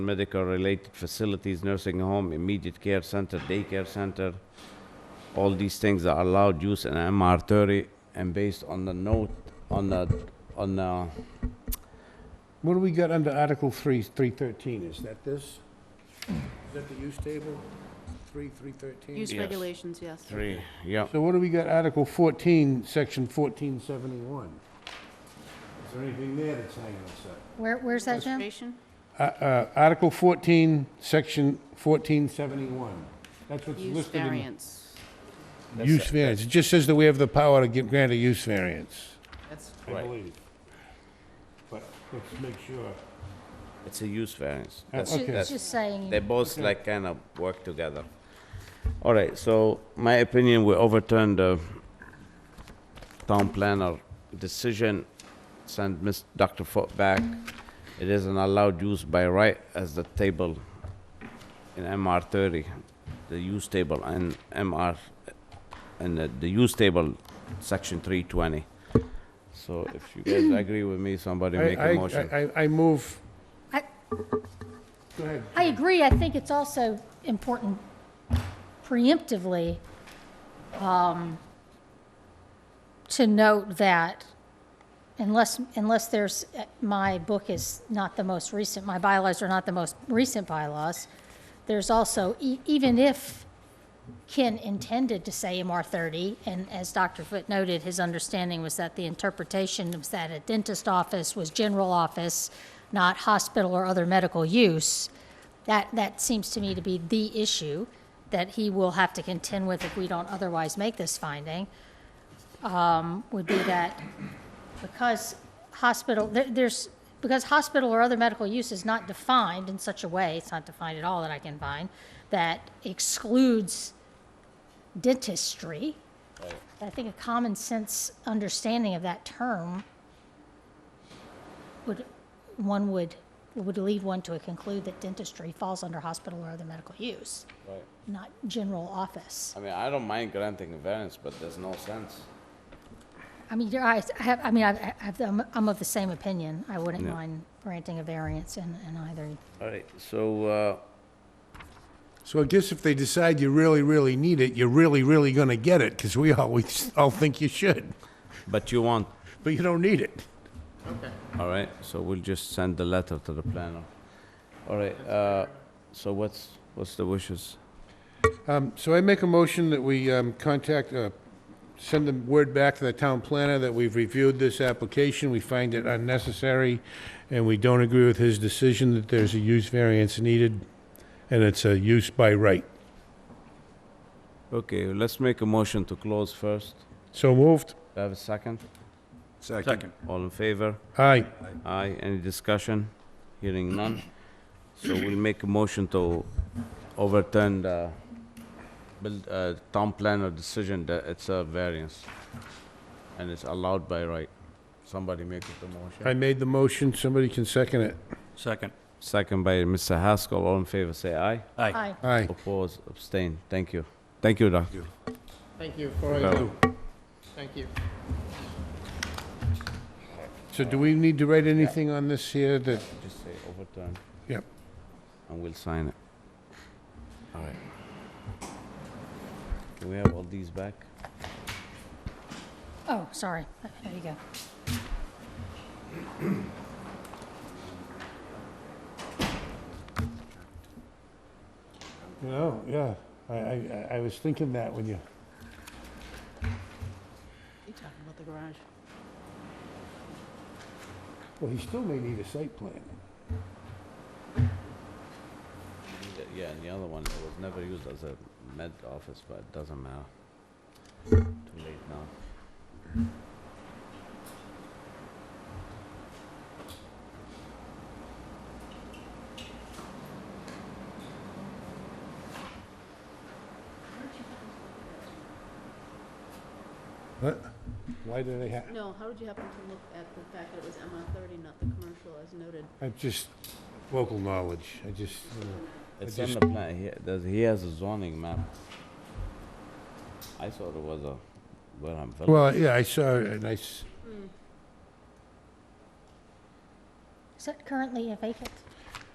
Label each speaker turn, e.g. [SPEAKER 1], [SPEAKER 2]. [SPEAKER 1] medical-related facilities, nursing home, immediate care center, daycare center. All these things are allowed use in MR thirty, and based on the note, on the, on the,
[SPEAKER 2] What do we got under Article 3, 313? Is that this? Is that the use table? 3, 313?
[SPEAKER 3] Use
[SPEAKER 1] Yes.
[SPEAKER 3] regulations, yes.
[SPEAKER 1] three, yeah.
[SPEAKER 2] So what do we got Article 14, Section 1471? Is there anything there that's hanging us up?
[SPEAKER 4] Where, where's that, Jim?
[SPEAKER 3] Registration?
[SPEAKER 2] Uh, uh, Article 14, Section 1471. That's what's
[SPEAKER 3] Use
[SPEAKER 2] listed in...
[SPEAKER 3] variance.
[SPEAKER 2] Use variance. It just says that we have the power to gi- grant a use variance,
[SPEAKER 3] That's,
[SPEAKER 2] I believe. But let's make sure.
[SPEAKER 1] It's a use variance.
[SPEAKER 4] It's
[SPEAKER 1] That's-
[SPEAKER 4] ju-
[SPEAKER 1] that's-
[SPEAKER 4] it's just saying,
[SPEAKER 1] They both like kind of work together. All right, so my opinion, we overturned the town planner decision, send Ms. Dr. Foot back. It isn't allowed use by right as the table in MR thirty, the use table and MR, and the- the use table, section three twenty. So if you guys agree with me, somebody
[SPEAKER 2] I-
[SPEAKER 1] make
[SPEAKER 2] I-
[SPEAKER 1] a motion.
[SPEAKER 2] I, I, I move...
[SPEAKER 4] I-
[SPEAKER 2] Go ahead.
[SPEAKER 4] I agree, I think it's also important preemptively, um, to note that unless, unless there's, uh, my book is not the most recent, my bylaws are not the most recent bylaws, there's also, e- even if Ken intended to say MR thirty, and as Dr. Foote noted, his understanding was that the interpretation was that a dentist office was general office, not hospital or other medical use. That, that seems to me to be the issue that he will have to contend with if we don't otherwise make this finding, um, would be that because hospital, there, there's, because hospital or other medical use is not defined in such a way, it's not defined at all that I can find, that excludes dentistry. I think a common sense understanding of that term would, one would, would lead one to conclude that dentistry falls under hospital or other medical use, not general office.
[SPEAKER 1] I mean, I don't mind granting a variance, but there's no sense.
[SPEAKER 4] I mean, you're, I I have, I mean, I, I have, I'm, I'm of the same opinion. I wouldn't
[SPEAKER 1] Yeah.
[SPEAKER 4] mind granting a variance in, in either.
[SPEAKER 1] All right, so, uh,
[SPEAKER 2] So I guess if they decide you really, really need it, you're really, really gonna get it, because we always all think you should,
[SPEAKER 1] but you want,
[SPEAKER 2] but you don't need it.
[SPEAKER 1] all right, so we'll just send the letter to the planner. All right, uh, so what's, what's the wishes?
[SPEAKER 2] Um, so I make a motion that we, um, contact, uh, send the word back to the town planner that we've reviewed this application, we find it unnecessary, and we don't agree with his decision that there's a use variance needed, and it's a use by right.
[SPEAKER 1] Okay, let's make a motion to close first.
[SPEAKER 2] So moved?
[SPEAKER 1] Do I have a second?
[SPEAKER 2] Second.
[SPEAKER 1] All in favor?
[SPEAKER 2] Aye.
[SPEAKER 1] Aye, any discussion? Hearing none. So we'll make a motion to overturn the build, uh, town planner decision that it's a variance. And it's allowed by right. Somebody make it a motion.
[SPEAKER 2] I made the motion, somebody can second it.
[SPEAKER 5] Second.
[SPEAKER 1] Second by Mr. Haskell, all in favor, say aye.
[SPEAKER 5] Aye.
[SPEAKER 4] Aye.
[SPEAKER 2] Aye.
[SPEAKER 1] Oppose, abstain, thank you. Thank you, Doc.
[SPEAKER 6] Thank you for,
[SPEAKER 1] Go.
[SPEAKER 6] thank you.
[SPEAKER 2] So do we need to write anything on this here that,
[SPEAKER 1] Just say overturn,
[SPEAKER 2] yep.
[SPEAKER 1] and we'll sign it. All right. Can we have all these back?
[SPEAKER 4] Oh, sorry. There you go.
[SPEAKER 2] You know, yeah, I, I, I was thinking that when you,
[SPEAKER 3] you talking about the garage.
[SPEAKER 2] well, he still may need a site plan.
[SPEAKER 1] Yeah, and the other one, it was never used as a med office, but it doesn't matter. Too late now.
[SPEAKER 2] What? Why do they have,
[SPEAKER 3] No, how did you happen to look at the fact that it was MR thirty, not the commercial as noted?
[SPEAKER 2] I just, local knowledge, I just, you know.
[SPEAKER 1] It's on
[SPEAKER 2] just-
[SPEAKER 1] the plan, he, does, he has a zoning map. I thought it was a, where I'm.
[SPEAKER 2] Well, yeah, I saw a
[SPEAKER 3] Hmm.
[SPEAKER 2] nice,
[SPEAKER 4] Is that currently a vacant?